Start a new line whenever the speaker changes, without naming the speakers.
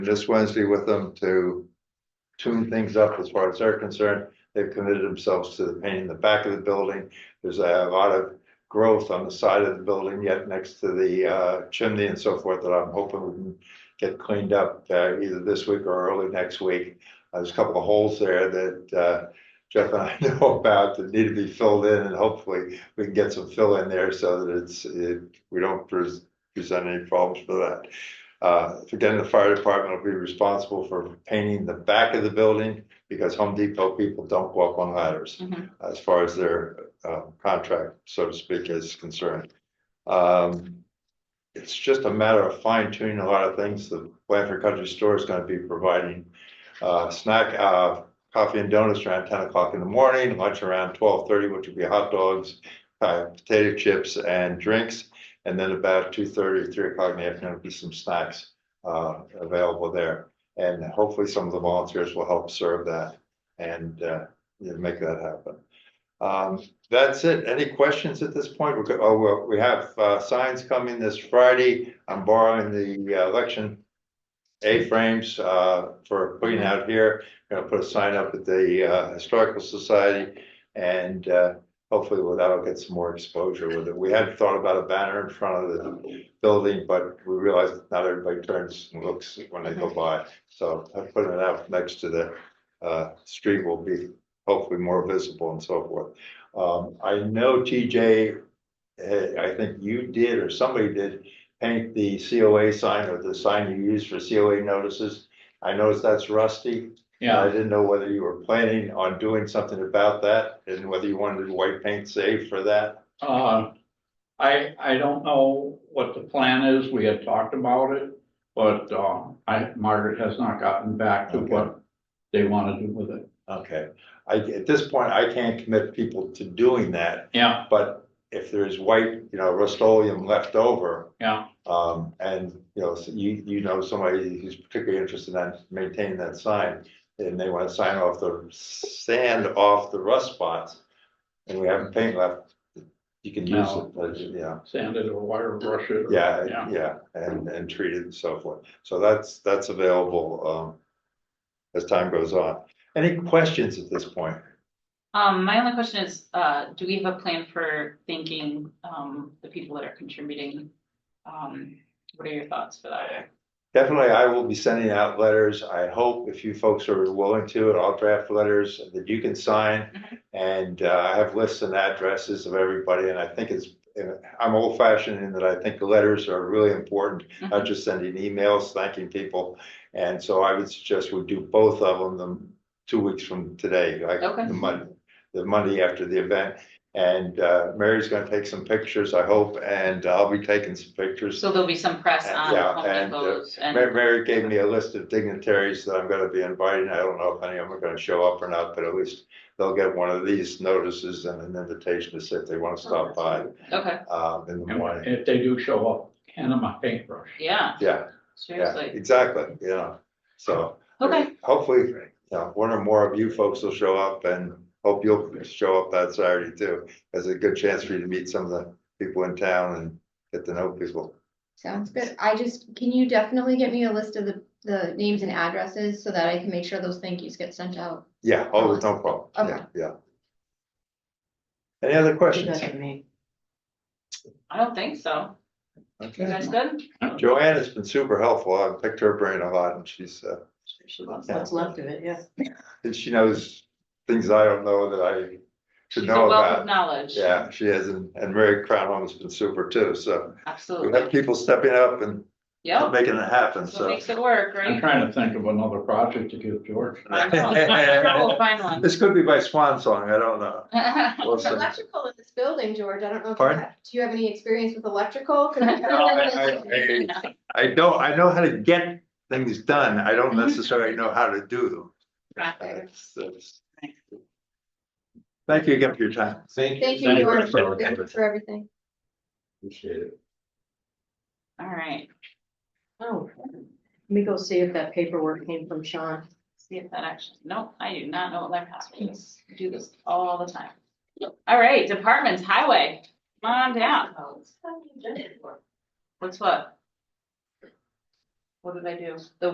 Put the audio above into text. this Wednesday with them to tune things up as far as they're concerned. They've committed themselves to painting the back of the building. There's a lot of growth on the side of the building yet next to the uh, chimney and so forth that I'm hoping we can get cleaned up uh, either this week or early next week. Uh, There's a couple of holes there that uh, Jeff and I know about that need to be filled in and hopefully we can get some fill in there so that it's, it- we don't pres- present any problems for that. Uh, again, the fire department will be responsible for painting the back of the building because Home Depot people don't walk on ladders
Mhm.
as far as their uh, contract, so to speak, is concerned. Um, it's just a matter of fine tuning a lot of things. The Blanford Country Store is going to be providing uh, snack, uh, coffee and donuts around ten o'clock in the morning, lunch around twelve thirty, which will be hot dogs, uh, potato chips and drinks. And then about 2:30, 3 o'clock in the afternoon, there'll be some snacks uh available there. And hopefully some of the volunteers will help serve that and uh you know, make that happen. Um, that's it. Any questions at this point? We could, oh, well, we have uh signs coming this Friday. I'm borrowing the uh, election. A-frames uh for putting out here. Gonna put a sign up at the uh Historical Society and uh hopefully well, that'll get some more exposure with it. We had thought about a banner in front of the building, but we realized not everybody turns and looks when they go by. So I put it out next to the uh street will be hopefully more visible and so forth. Um, I know TJ, eh, I think you did or somebody did paint the COA sign or the sign you use for COA notices. I noticed that's rusty. I
Yeah,
didn't know whether you were planning on doing something about that and whether you wanted white paint saved for that.
uh, I, I don't know what the plan is, we had talked about it, but, uh, I, Margaret has not gotten back to
Okay.
what they wanna do with it.
Okay, I, at this point, I can't commit people to doing that,
Yeah,
but if there's white, you know, Rust-Oleum left over.
Yeah.
Um, and, you know, so you, you know somebody who's particularly interested in maintaining that sign, and they wanna sign off the sand off the rust spots. And we have paint left, you can use it,
No.
but, yeah.
sand it or wire brush it. or-
Yeah,
Yeah.
yeah, and, and treated and so forth. So that's, that's available, um, as time goes on. Any questions at this point?
Um, my only question is, uh, do we have a plan for thanking, um, the people that are contributing? Um, what are your thoughts for that?
Definitely, I will be sending out letters. I hope if you folks are willing to, and I'll draft letters that you can sign.
Mhm.
And uh, I have lists and addresses of everybody, and I think it's, and I'm old fashioned in that I think the letters are really important. Not just sending emails thanking people. And so I would suggest we do both of them, them two weeks from today, like
Okay.
the Monday, the Monday after the event. And uh, Mary's gonna take some pictures, I hope, and I'll be taking some pictures.
So there'll be some press on
Yeah,
Home
and, uh,
Depot's
Mary,
and,
Mary gave me a list of dignitaries that I'm gonna be inviting. I don't know if any of them are gonna show up or not, but at least they'll get one of these notices and an invitation to say if they wanna stop by,
okay,
um, in the
And
morning.
if they do show up, hand them a paintbrush.
yeah,
Yeah, yeah,
seriously,
exactly, yeah. So
okay,
hopefully, you know, one or more of you folks will show up and hope you'll show up that Saturday too. As a good chance for you to meet some of the people in town and get to know people.
Sounds good. I just, can you definitely get me a list of the, the names and addresses so that I can make sure those thank yous get sent out?
Yeah, oh, no problem. Yeah,
Okay.
yeah. Any other questions?
I don't think so. You
Okay.
guys good?
Joanne has been super helpful. I've picked her brain a lot and she's, uh,
She loves
Yeah.
it.
What's left of it, yeah.
and she knows things I don't know that I should
She's a
know
wealth of
about.
knowledge.
Yeah, she is. And, and Mary Crown has been super too. So we
Absolutely,
have people stepping up and
yep,
making it happen.
that's what
So
makes it work,
I'm
right?
trying to think of another project to give George.
I know. Sure, We'll find one.
this could be my swan song. I don't know. We'll see.
Electrical in this building, George, I don't know. if you
Pardon?
have- Do you have any experience with electrical? 'Cause we
No, I-
have-
I- I- I don't, I know how to get things done. I don't
Mhm.
necessarily know how to do them.
Right.
That's- that's- Thank you again for your time.
Thank
Thank
you,
you
George,
for
Thank you for everything.
Appreciate it.
All right,
Oh, let me go see if that paperwork came from Sean.
see if that actually, no, I do not know what that password is. I Do this all the time. All right, departments, highway, come on down. What's what? What did I do? The